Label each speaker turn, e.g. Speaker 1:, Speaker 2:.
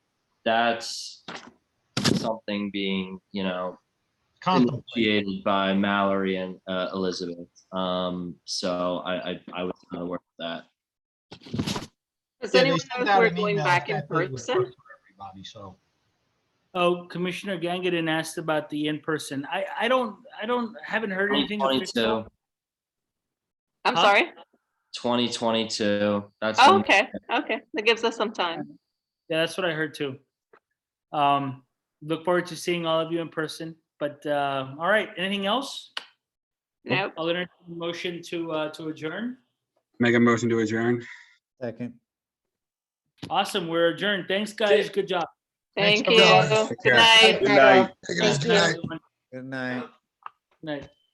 Speaker 1: that's something being, you know,
Speaker 2: Contemplate.
Speaker 1: initiated by Mallory and uh, Elizabeth. Um, so I, I, I would kind of work with that.
Speaker 3: Does
Speaker 2: Yeah, they
Speaker 3: anyone know
Speaker 2: sent
Speaker 3: if
Speaker 2: out
Speaker 3: we're
Speaker 2: an
Speaker 3: going
Speaker 2: email
Speaker 3: back
Speaker 2: that I
Speaker 3: in
Speaker 2: think was
Speaker 3: person?
Speaker 2: for Everybody, so.
Speaker 4: Oh, Commissioner Gangadin asked about the in-person. I, I don't, I don't, haven't
Speaker 1: Oh,
Speaker 4: heard anything. official.
Speaker 1: 2022,
Speaker 3: I'm
Speaker 4: Huh?
Speaker 3: sorry.
Speaker 1: 2022, that's.
Speaker 3: Oh,
Speaker 1: when-
Speaker 3: okay, okay. That gives us some time.
Speaker 4: Yeah, that's what I heard too. Um, look forward to seeing all of you in person, but, uh, all right, anything else?
Speaker 3: Nope.
Speaker 4: I'll entertain a motion to, uh, to adjourn.
Speaker 5: Make a motion to adjourn.
Speaker 6: Second.
Speaker 4: Awesome, we're adjourned. Thanks, guys. Good job.
Speaker 3: Thank
Speaker 2: everyone.
Speaker 3: you.
Speaker 5: Take
Speaker 3: Good
Speaker 5: care.
Speaker 3: night.
Speaker 7: Good night.
Speaker 4: Good
Speaker 6: Good night.
Speaker 4: Night.